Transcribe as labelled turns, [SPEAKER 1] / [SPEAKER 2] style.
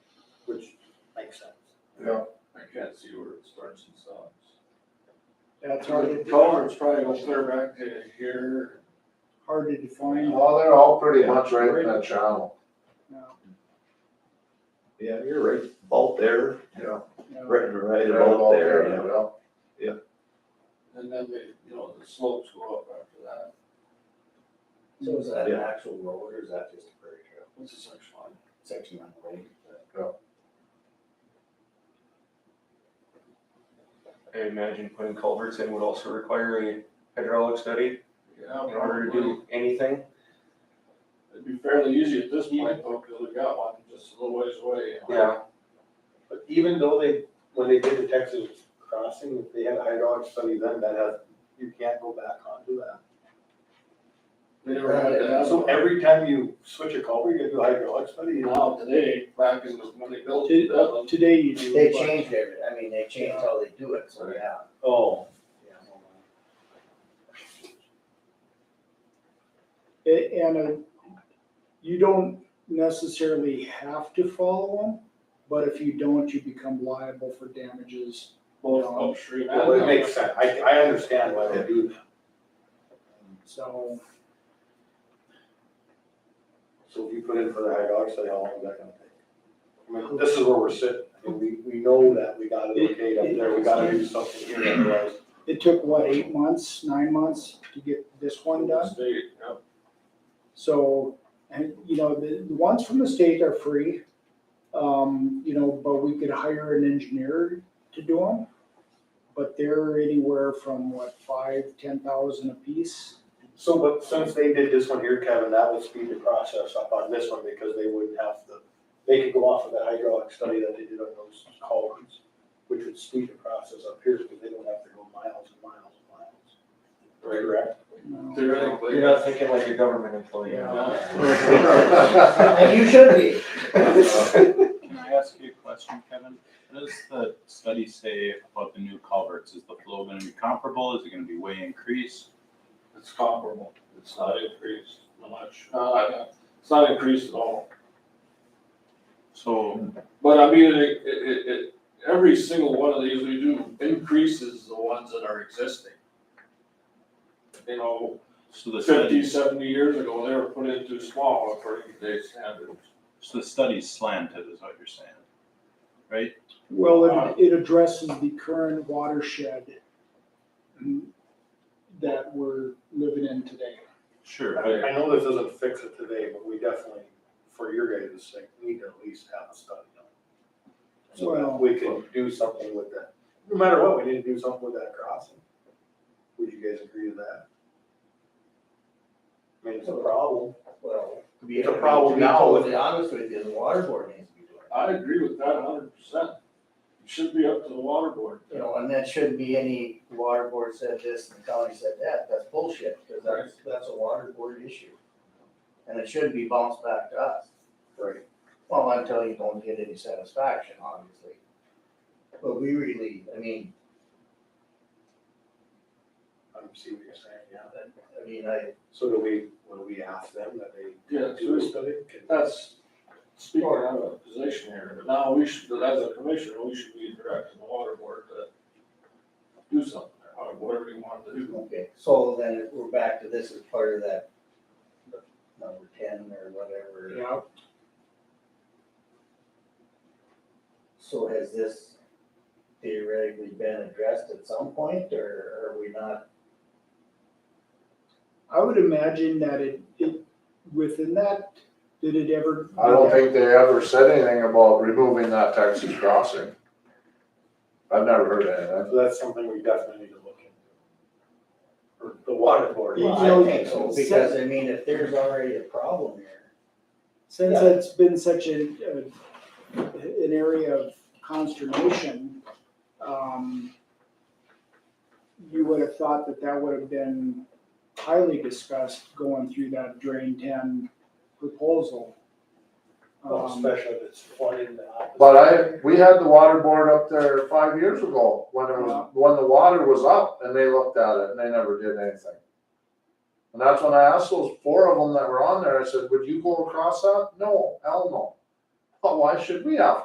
[SPEAKER 1] which makes sense.
[SPEAKER 2] Yeah.
[SPEAKER 3] I can't see where it starts and stops.
[SPEAKER 4] Yeah, it's hard to,
[SPEAKER 3] Culvert's probably up there back to here.
[SPEAKER 4] hard to define.
[SPEAKER 2] Well, Oh, they're all pretty much right in that channel.
[SPEAKER 4] No,
[SPEAKER 5] Yeah, you're right, about there,
[SPEAKER 4] no.
[SPEAKER 5] right, right
[SPEAKER 2] They're all
[SPEAKER 5] about there, yeah.
[SPEAKER 2] yeah.
[SPEAKER 3] And then they, you know, the slopes go up after that.
[SPEAKER 1] So is that an
[SPEAKER 5] Yeah.
[SPEAKER 1] actual road or is that just a prairie trail,
[SPEAKER 3] What's the section line?
[SPEAKER 1] section on the road?
[SPEAKER 6] I imagine putting culverts in would also require a hydraulic study
[SPEAKER 3] Yeah,
[SPEAKER 6] in order to
[SPEAKER 3] probably.
[SPEAKER 6] do anything.
[SPEAKER 3] It'd be fairly easy at this point though, because we got one just a little ways away. you know.
[SPEAKER 6] Yeah,
[SPEAKER 1] But even though they, when they did the Texas crossing, if they had a hydraulic study then, that has, you can't go back onto that.
[SPEAKER 3] They never had that.
[SPEAKER 1] So every time you switch a culvert, you do a hydraulic study, you know?
[SPEAKER 3] Now today, back in the, when they built
[SPEAKER 4] To- uh,
[SPEAKER 3] it, that one,
[SPEAKER 4] Today you do.
[SPEAKER 7] They
[SPEAKER 4] but-
[SPEAKER 7] changed everything, I mean, they changed how they do it, so yeah.
[SPEAKER 1] Oh.
[SPEAKER 4] A- And uh, you don't necessarily have to follow them, but if you don't, you become liable for damages. Um,
[SPEAKER 3] both upstream and.
[SPEAKER 1] Well, it makes sense, I, I understand why they do that.
[SPEAKER 4] So
[SPEAKER 1] So if you put in for the hydraulic study, how long is that gonna take? I mean, this is where we're sitting, I mean, we, we know that, we got it okay up there, we gotta do something here otherwise.
[SPEAKER 4] it took, what, eight months, nine months to get this one done?
[SPEAKER 3] State, yeah.
[SPEAKER 4] So, and, you know, the, the ones from the state are free. Um, you know, but we could hire an engineer to do them. But they're anywhere from what, five, ten thousand apiece?
[SPEAKER 1] So, but since they did this one here, Kevin, that would speed the process up on this one because they wouldn't have to, they could go off of the hydraulic study that they did on those culverts, which would speed the process up here because they don't have to go miles and miles and miles. Correct?
[SPEAKER 4] No.
[SPEAKER 3] Theoretically.
[SPEAKER 6] you're not thinking like a government employee.
[SPEAKER 4] Yeah.
[SPEAKER 7] And you should be.
[SPEAKER 1] Uh,
[SPEAKER 8] Can I ask you a question, Kevin? What does the study say about the new culverts? Is the flow gonna be comparable? Is it gonna be way increased?
[SPEAKER 3] It's comparable, it's not increased much, uh, it's not increased at all.
[SPEAKER 8] So,
[SPEAKER 3] But I mean, it, it, it, it- every single one of these we do increases the ones that are existing. You know,
[SPEAKER 8] so the
[SPEAKER 3] fifty,
[SPEAKER 8] study,
[SPEAKER 3] seventy years ago, they were put in too small according to today's standards.
[SPEAKER 8] so the study's slanted is what you're saying, right?
[SPEAKER 4] Well, it, it addresses the current watershed mm, that we're living in today.
[SPEAKER 8] Sure,
[SPEAKER 1] I
[SPEAKER 8] but
[SPEAKER 1] I know this doesn't fix it today, but we definitely, for your guys' sake, need to at least have a study done. So that we can do something with that. No matter what, we need to do something with that crossing. Would you guys agree to that? I mean, it's a problem.
[SPEAKER 7] Well,
[SPEAKER 1] It's a problem now
[SPEAKER 7] To
[SPEAKER 1] with
[SPEAKER 7] be honest with you, the water board needs to be doing it.
[SPEAKER 3] I agree with that hundred percent. It should be up to the water board.
[SPEAKER 7] You know, and that shouldn't be any water board said this and the county said that, that's bullshit, because that's, that's a water board issue. And it shouldn't be bounced back to us.
[SPEAKER 1] Right.
[SPEAKER 7] Well, until you don't get any satisfaction, obviously. But we really, I mean,
[SPEAKER 1] I'm seeing what you're saying, yeah.
[SPEAKER 7] I mean, I,
[SPEAKER 1] So do we, what do we ask them that they
[SPEAKER 3] Yeah,
[SPEAKER 1] do a study?
[SPEAKER 3] That's, speaking out of a position here, but now we should, as a commissioner, we should be directing the water board to do something, or whatever you want to do.
[SPEAKER 7] Okay, so then we're back to this as part of that number ten or whatever.
[SPEAKER 4] Yeah.
[SPEAKER 7] So has this theoretically been addressed at some point, or are we not?
[SPEAKER 4] I would imagine that it, it, within that, did it ever?
[SPEAKER 2] I don't think they ever said anything about removing that Texas crossing. I've never heard of
[SPEAKER 1] So that's something we definitely need to look into. Or the water board.
[SPEAKER 4] You know,
[SPEAKER 7] I think so, Because I mean, if there's already a problem there,
[SPEAKER 4] Since
[SPEAKER 7] Yeah.
[SPEAKER 4] it's been such a, a- an area of consternation, um, you would have thought that that would have been highly discussed going through that drain ten proposal.
[SPEAKER 1] Well,
[SPEAKER 4] Um,
[SPEAKER 1] Especially if it's flooded in the opposite.
[SPEAKER 2] that. But I, we had the water board up there five years ago when it was, when the water was up and they looked at it and they never did anything. And that's when I asked those four of them that were on there, I said, would you go across that? No, hell no. But why should we have